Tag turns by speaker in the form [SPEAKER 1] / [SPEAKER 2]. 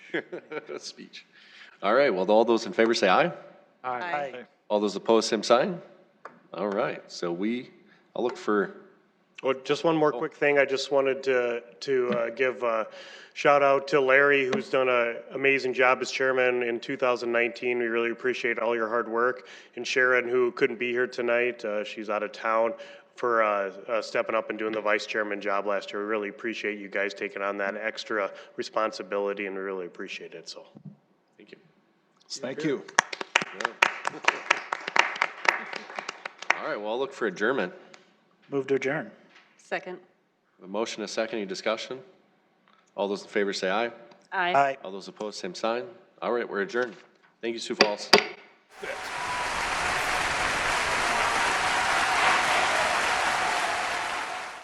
[SPEAKER 1] Speech. All right, well, all those in favor say aye.
[SPEAKER 2] Aye.
[SPEAKER 1] All those opposed, same sign. All right, so we, I'll look for,
[SPEAKER 3] Well, just one more quick thing. I just wanted to, to uh, give a shout out to Larry, who's done an amazing job as chairman in 2019. We really appreciate all your hard work. And Sharon, who couldn't be here tonight, uh, she's out of town, for uh, uh, stepping up and doing the vice chairman job last year. We really appreciate you guys taking on that extra responsibility, and we really appreciate it, so.
[SPEAKER 1] thank you.
[SPEAKER 4] Thank you.
[SPEAKER 1] All right, well, I'll look for adjournment.
[SPEAKER 2] Move to adjourn.
[SPEAKER 5] Second.
[SPEAKER 1] A motion, a second, any discussion? All those in favor say aye.
[SPEAKER 5] Aye.
[SPEAKER 2] Aye.
[SPEAKER 1] All those opposed, same sign. All right, we're adjourned. Thank you, Sioux Falls.